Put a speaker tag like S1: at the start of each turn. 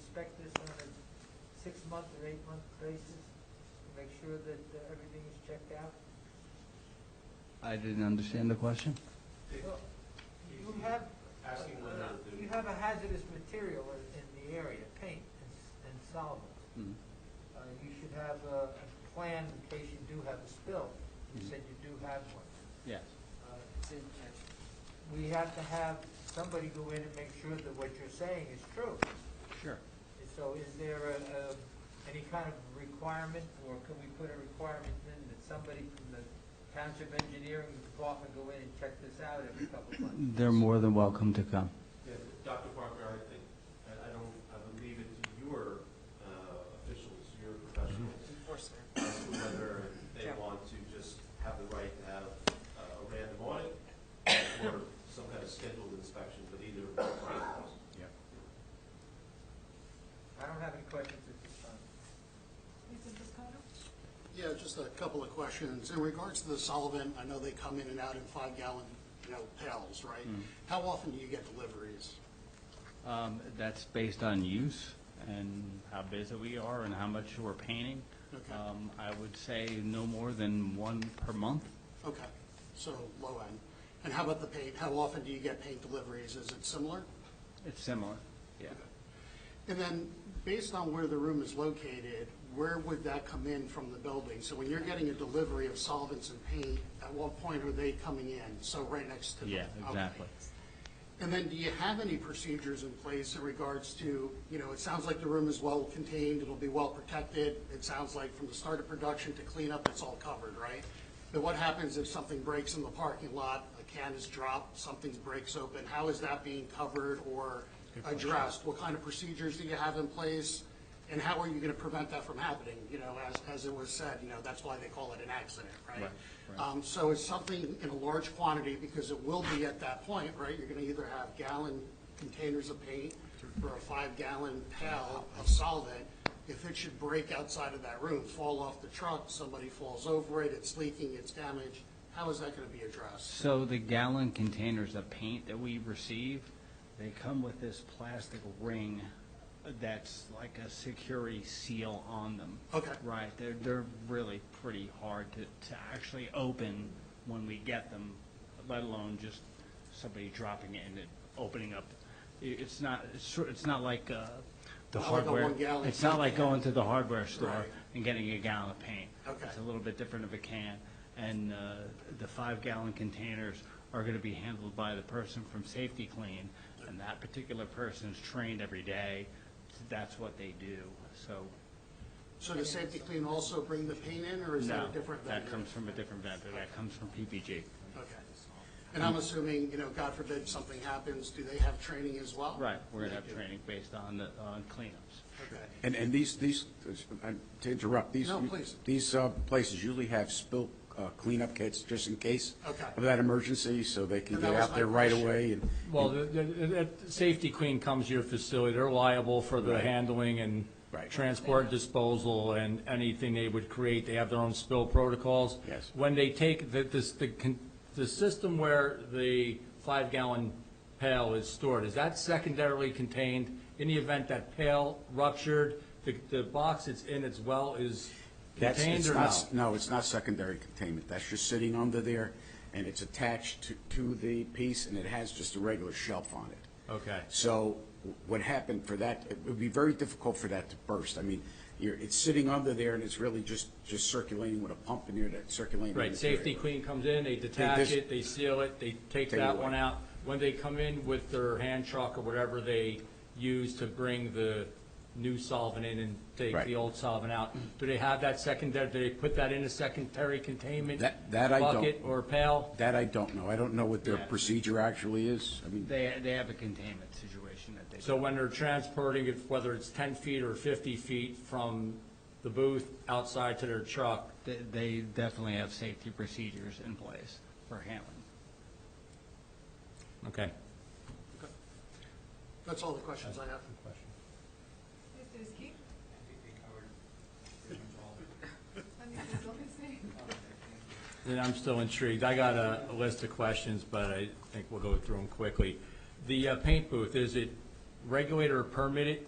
S1: inspect this on a six-month or eight-month basis? to Make sure that uh, everything is checked out?
S2: I didn't understand the question.
S1: Well, You have,
S3: Asking whether the-
S1: you have a hazardous material in- in the area, paint and s- and solvents.
S2: Mm-hmm.
S1: Uh, You should have a a plan in case you do have a spill. You
S2: Mhm.
S1: said you do have one.
S2: Yes.
S1: Uh, We have to have somebody go in and make sure that what you're saying is true.
S2: Sure.
S1: So is there a, a- any kind of requirement, or can we put a requirement in that somebody from the township engineering department go in and check this out every couple of months?
S2: They're more than welcome to come.
S3: Yeah, Dr. Parker, I think, I I don't, I would leave it to your uh, officials, your professionals,
S4: Enforcement.
S3: as to whether they
S4: Yeah.
S3: want to just have the right to have uh, a random audit or some kind of scheduled inspection, but either.
S1: I don't have any questions at this time.
S5: Yeah, just a couple of questions. In regards to the solvent, I know they come in and out in five-gallon, you know, pails, right?
S2: Mm-hmm.
S5: How often do you get deliveries?
S2: Um, That's based on use and how busy we are and how much we're painting.
S5: Okay.
S2: Um, I would say no more than one per month.
S5: Okay, so low end. And how about the paint? How often do you get paint deliveries? Is it similar?
S2: It's similar. Yeah.
S5: And then, based on where the room is located, where would that come in from the building? So when you're getting a delivery of solvents and paint, at what point are they coming in? So right next to the
S2: Yeah,
S5: Okay.
S2: exactly.
S5: And then, do you have any procedures in place in regards to, you know, it sounds like the room is well contained, it'll be well protected. It sounds like from the start of production to cleanup, it's all covered, right? But what happens if something breaks in the parking lot, a can is dropped, something breaks open? How is that being covered or addressed? What kind of procedures do you have in place? And how are you going to prevent that from happening? You know, as, as it was said, you know, that's why they call it an accident, right?
S2: Right, right.
S5: Um, so it's something in a large quantity, because it will be at that point, right? You're gonna either have gallon containers of paint or a five-gallon pail of solvent. If it should break outside of that room, fall off the truck, somebody falls over it, it's leaking, it's damaged, how is that gonna be addressed?
S2: So the gallon containers of paint that we receive, they come with this plastic ring that's like a security seal on them.
S5: Okay.
S2: Right, they're, they're really pretty hard to, to actually open when we get them, let alone just somebody dropping it and it opening up. I- It's not, it's sort, it's not like, uh, the
S5: Not like a
S2: hardware.
S5: one-gallon
S2: It's not like
S5: can.
S2: going to the hardware store
S5: Right.
S2: and getting a gallon of paint.
S5: Okay.
S2: It's a little bit different of a can, and uh, the five-gallon containers are going to be handled by the person from Safety Clean, and that particular person's trained every day, that's what they do, so.
S5: So does Safety Clean also bring the paint in, or is that
S2: no,
S5: a different vendor?
S2: That comes from a different vendor, that comes from PPG.
S5: Okay. And I'm assuming, you know, God forbid, something happens, do they have training as well?
S2: Right, we're going to have training based on, the- on cleanups.
S5: Okay.
S6: And, and these, these, uh, to interrupt, these.
S5: No, please.
S6: These uh, places usually have spill uh, cleanup kits just in case.
S5: Okay.
S6: Of that emergency, so they can
S5: And that
S6: get
S5: was
S6: out there
S5: my
S6: right
S5: question.
S6: away and.
S7: Well, the, the, that Safety Queen comes to your facility, they're liable for the handling and
S6: Right.
S7: transport disposal and anything they would create, they have their own spill protocols.
S6: Yes.
S7: When they take, the, this, the, con- the system where the five gallon pail is stored, is that secondarily contained? In the event that pail ruptured, the, the box it's in as well is
S6: That's-
S7: contained
S6: it's
S7: or
S6: not
S7: no?
S6: s- No, it's not secondary containment. That's just sitting under there and it's attached to, to the piece and it has just a regular shelf on it.
S7: Okay.
S6: So what happened for that, it would be very difficult for that to burst. I mean, you're, it's sitting under there and it's really just, just circulating with a pump in there that circulating.
S7: Right,
S6: material.
S7: Safety Queen comes in, they detach
S6: dis-
S7: it, they seal it, they take
S6: Take it
S7: that
S6: away.
S7: one out. When they come in with their hand truck or whatever they use to bring the new solvent in and take
S6: Right.
S7: the old solvent out, do they have that secondary, do they put that in a secondary containment?
S6: That- that I don't-
S7: Bucket or pail?
S6: That I don't know. I don't know what their
S7: Yeah.
S6: procedure actually is. I mean,
S2: They, they have a containment situation that they.
S7: So when they're transporting it, whether it's ten feet or fifty feet from the booth outside to their truck,
S2: They- They definitely have safety procedures in place for handling.
S7: okay.
S5: That's all the questions I have.
S8: Mr. Ski? I think they covered pretty much all of it. I mean, there's
S7: Then I'm still intrigued. I got a a list of questions, but I think we'll go through them quickly. The uh, paint booth, is it regulated or permitted?